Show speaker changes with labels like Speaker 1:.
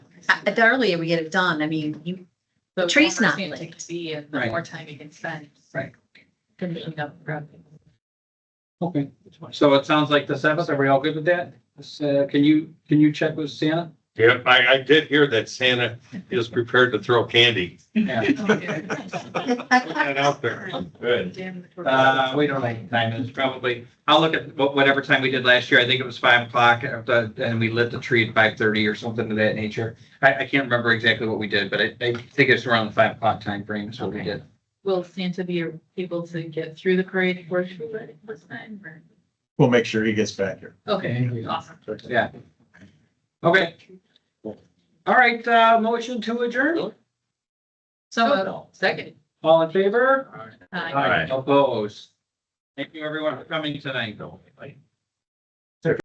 Speaker 1: uh, the earlier we get it done, I mean, you,
Speaker 2: The
Speaker 1: tree's
Speaker 2: longer
Speaker 1: not
Speaker 2: it's gonna
Speaker 1: lit.
Speaker 2: take to Be and the
Speaker 3: Right.
Speaker 2: more time you can spend.
Speaker 3: Right.
Speaker 2: Can be up grubbing.
Speaker 3: Okay, so it sounds like the seventh, are we all good with that? This, uh, Can you, can you check with Santa?
Speaker 4: Yeah, I, I did hear that Santa is prepared to throw candy.
Speaker 3: Yeah.
Speaker 2: Oh,
Speaker 4: Put that out there. Good.
Speaker 3: Uh, we don't like time, it's probably, I'll look at wha- whatever time we did last year, I think it was five o'clock, uh, the- and we lit the tree at five thirty or something of that nature. I, I can't remember exactly what we did, but I, I think it's around the five o'clock time frame is what we did.
Speaker 2: Will Santa be able to get through the parade and work through it this time? or-
Speaker 5: We'll make sure he gets back here.
Speaker 2: Okay, awesome.
Speaker 3: Yeah. Okay. All right, uh, motion to adjourn,
Speaker 2: So, uh, second.
Speaker 3: all in favor?
Speaker 2: Aye.
Speaker 3: Opposed. Thank you everyone for coming tonight.